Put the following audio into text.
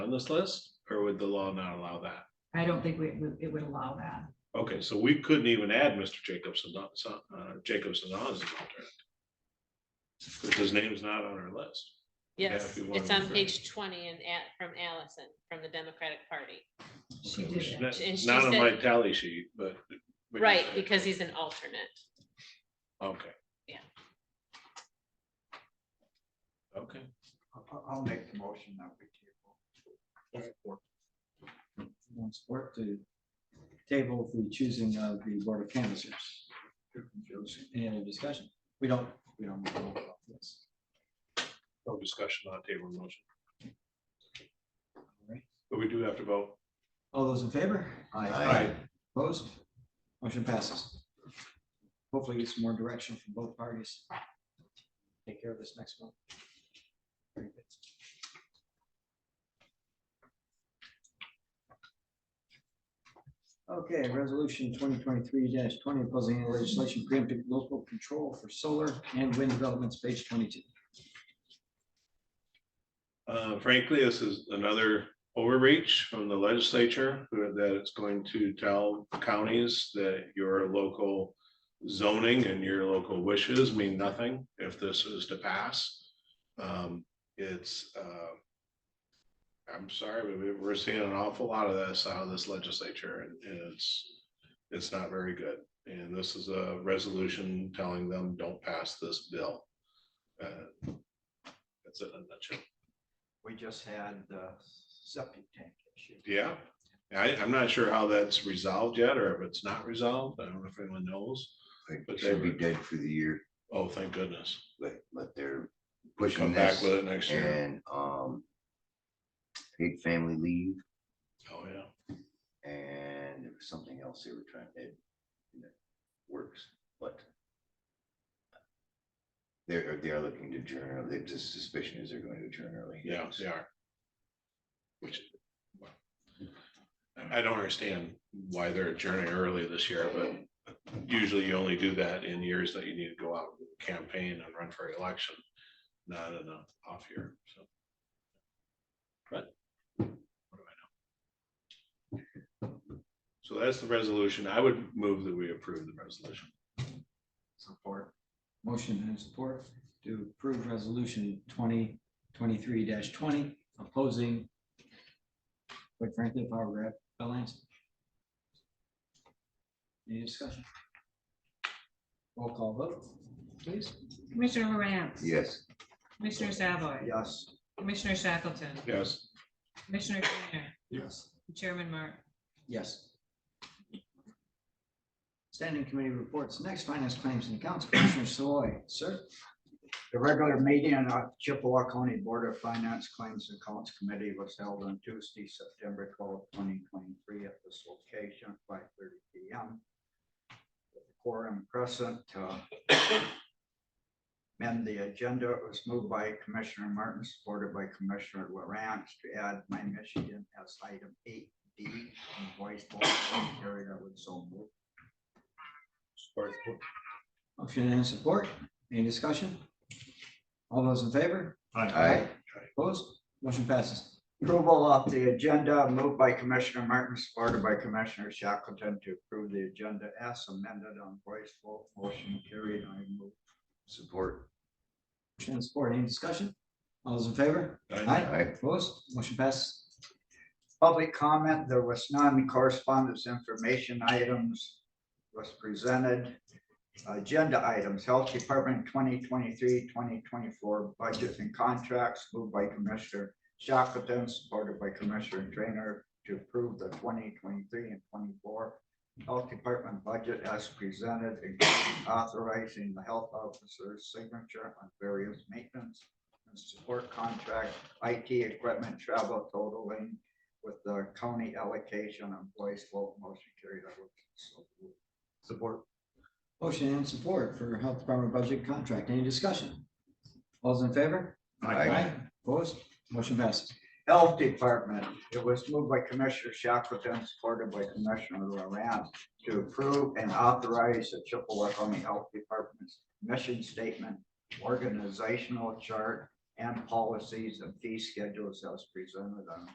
on this list, or would the law not allow that? I don't think we, we- it would allow that. Okay, so we couldn't even add Mr. Jacobson, uh, so- uh, Jacobson on as an alternate. Because his name's not on our list. Yes, we it's wanted on to- page twenty and at, from Allison, from the Democratic Party. She Okay, did which is that. not- And she Not on my said- tally sheet, but. but- Right, because he's an alternate. Okay. Yeah. Okay, I'll, I'll make the motion that we table. One support to table the choosing of the board of canvassers. Any other discussion? We don't, we don't. need to vote about this. no discussion on table motion, All right. but we do have to vote. All those in favor? Aye. Opposed? Motion passes. Hopefully get some more direction from both parties. Take care of this next month. Very good. Okay, resolution twenty twenty-three twenty opposing any legislation preempting local control for solar and wind developments, page twenty-two. Uh, frankly, this is another overreach from the legislature who- that it's going to tell counties that your local zoning and your local wishes mean nothing if this is to pass. Um, it's, uh, I'm sorry, but we- we're seeing an awful lot of this out of this legislature and and it's, it's not very good. And this is a resolution telling them, don't pass this bill. Uh, That's it in a nutshell. We just had the septic tank issue. Yeah, I, I'm not sure how that's resolved yet, or if it's not resolved, I don't know if anyone knows. I think But it should they- be dead for the year, Oh, thank goodness, but, but they're pushing come back this with it next year. and, um, paid family leave Oh, yeah, and there was something else they were trying to, you know, works, but they're, they're looking to adjourn early. The suspicion is they're going to adjourn early. yeah, they are. Which, well, I I don't understand why they're adjourning early this year, but usually you only do that in years that you need to go out and campaign and run for election, not in a off year, so. But. what do I know? So that's the resolution. I would move that we approve the resolution. Support. Motion and support to approve resolution twenty twenty-three twenty opposing. Quite frankly, power grab Bill Lanson. Any discussion? Roll call vote, please. Commissioner Lawrence. Yes, Commissioner Savoy. Yes. Commissioner Shackleton. Yes, Commissioner Trainer. Yes. Chairman Mark. Yes. Standing committee reports, next finance claims and accounts, Commissioner Soy, sir. The regular meeting of Chippewa County Board of Finance Claims and Accounts Committee was held on Tuesday, September twelfth, twenty twenty-three at this location, five thirty P M. Quorum present, uh, amend the agenda, it was moved by Commissioner Martin, supported by Commissioner Lawrence to add my Michigan as item eight D. Voice vote, carried out with so moved. Motion and support. Any discussion? All those in favor? Aye. Opposed? Motion passes. Approval of the agenda moved by Commissioner Martin, supported by Commissioner Shackleton to approve the agenda as amended on voice vote. Motion carried. I move. support. Motion and support. Any discussion? All those in favor? Aye. Aye. Opposed? Motion passes. Public comment, there was none. Correspondence information items was presented. Agenda items, Health Department 2023-2024 budgets and contracts moved by Commissioner Shackleton, supported by Commissioner Trainer to approve the twenty twenty-three and twenty-four Health Department budget as presented, including authorizing the health officer's signature on various maintenance and support contract, IT equipment, travel totaling with the county allocation and voice vote motion carried. I would so move. Support. Motion and support for Health Department budget contract. Any discussion? All those in favor? Aye. Opposed? Motion passes. Health Department, it was moved by Commissioner Shackleton, supported by Commissioner Loran to approve and authorize the Chippewa County Health Department's mission statement, organizational chart, and policies and fee schedules as presented on